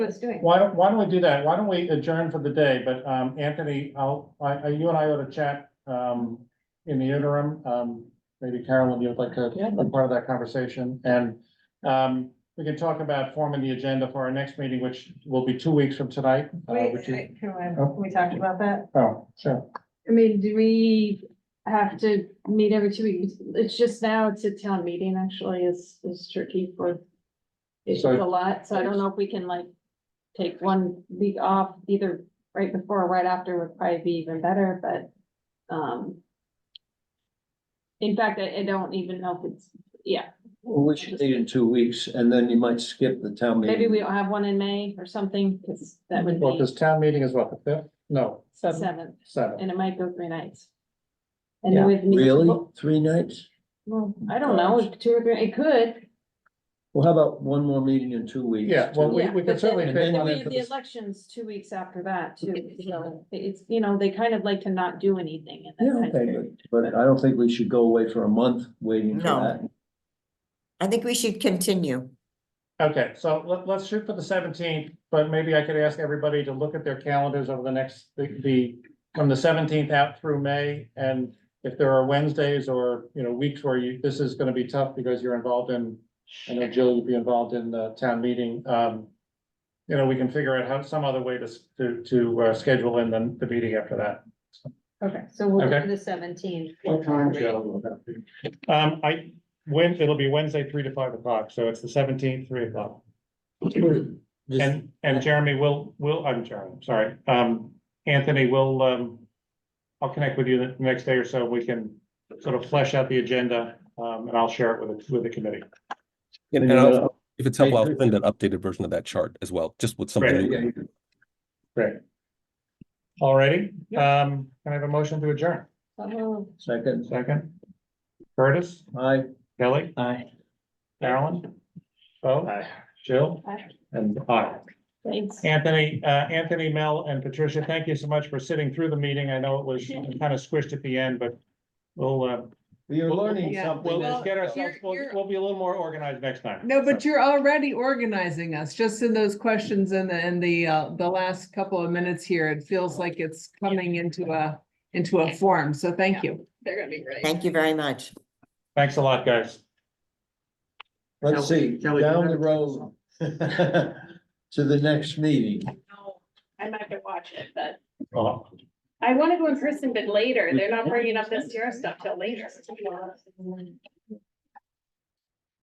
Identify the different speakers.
Speaker 1: was doing.
Speaker 2: Why don't, why don't we do that? Why don't we adjourn for the day? But, um, Anthony, I'll, I, I- you and I ought to chat, um, in the interim. Um, maybe Carolyn, you'd like to be part of that conversation and, um, we can talk about forming the agenda for our next meeting, which will be two weeks from tonight. uh,
Speaker 1: Wait,
Speaker 2: which is-
Speaker 1: I- can I-
Speaker 2: Oh.
Speaker 1: we talked about that?
Speaker 2: Oh, sure.
Speaker 3: I mean, do we have to meet every two weeks? It's just now, it's a town meeting actually is, is tricky for. It's
Speaker 2: So-
Speaker 3: a lot, so I don't know if we can like take one week off either right before or right after would probably be even better, but, um. In fact, I, I don't even know if it's, yeah,
Speaker 4: Well, we should meet in two weeks and then you might skip the town meeting.
Speaker 3: maybe we don't have one in May or something, because that would
Speaker 2: Well,
Speaker 3: be
Speaker 2: this town meeting is what, the fifth? No,
Speaker 3: seventh,
Speaker 2: seventh.
Speaker 3: and it might go three nights. And then we'd meet-
Speaker 4: Really? Three nights?
Speaker 3: Well, I don't know, two or three, it could.
Speaker 4: Well, how about one more meeting in two weeks?
Speaker 2: Yeah, well, we,
Speaker 3: Yeah, but
Speaker 2: we can
Speaker 3: then-
Speaker 2: certainly
Speaker 4: And
Speaker 2: fit
Speaker 4: then
Speaker 2: one
Speaker 4: we-
Speaker 2: in
Speaker 3: The
Speaker 2: for
Speaker 3: the
Speaker 2: this.
Speaker 3: election's two weeks after that too, so it's, you know, they kind of like to not do anything in
Speaker 4: Yeah,
Speaker 3: that time
Speaker 4: okay,
Speaker 3: period.
Speaker 4: but but I don't think we should go away for a month waiting for
Speaker 5: No.
Speaker 4: that.
Speaker 5: I think we should continue.
Speaker 2: Okay, so let, let's shoot for the seventeenth, but maybe I could ask everybody to look at their calendars over the next, the, the, from the seventeenth out through May. And if there are Wednesdays or, you know, weeks where you, this is gonna be tough because you're involved in, I know Jill, you'd be involved in the town meeting, um. You know, we can figure out how, some other way to, s- to, to, uh, schedule in the, the meeting after that.
Speaker 1: Okay, so we'll
Speaker 2: Okay.
Speaker 1: do the seventeenth.
Speaker 2: Um, I, when, it'll be Wednesday, three to five o'clock, so it's the seventeenth, three o'clock.
Speaker 4: Just-
Speaker 2: And, and Jeremy will, will, I'm Jeremy, sorry, um, Anthony will, um. I'll connect with you the next day or so, we can sort of flesh out the agenda, um, and I'll share it with, the- with the committee.
Speaker 4: and
Speaker 6: And and
Speaker 4: you
Speaker 6: I'll-
Speaker 4: gotta-
Speaker 6: if it's
Speaker 4: I
Speaker 6: helpful, I'll
Speaker 4: agree.
Speaker 6: send an updated version of that chart as well, just with something.
Speaker 2: Right,
Speaker 6: new.
Speaker 4: yeah,
Speaker 2: Great. Alrighty, um, can I have a motion to adjourn?
Speaker 3: So,
Speaker 4: Second,
Speaker 2: Second. Curtis,
Speaker 4: aye.
Speaker 2: Kelly,
Speaker 4: Aye.
Speaker 2: Carolyn, Bo, Jill,
Speaker 3: Aye.
Speaker 2: and I.
Speaker 3: Thanks.
Speaker 2: Anthony, uh, Anthony, Mel and Patricia, thank you so much for sitting through the meeting. I know it was kind of squished at the end, but we'll, uh,
Speaker 4: We are
Speaker 2: Well,
Speaker 4: learning
Speaker 7: yeah,
Speaker 4: something.
Speaker 2: Well, let's
Speaker 4: that's-
Speaker 2: get ourselves, we'll,
Speaker 7: uh, you're-
Speaker 2: we'll be a little more organized next time.
Speaker 7: No, but you're already organizing us, just in those questions and the, and the, uh, the last couple of minutes here, it feels like it's coming into a, into a form, so thank you.
Speaker 3: They're gonna be great.
Speaker 5: Thank you very much.
Speaker 2: Thanks a lot, guys.
Speaker 4: Let's see, down the road. To the next meeting.
Speaker 3: I might have to watch it, but
Speaker 2: Uh,
Speaker 3: I want to go in person, but later, they're not bringing up this year stuff till later.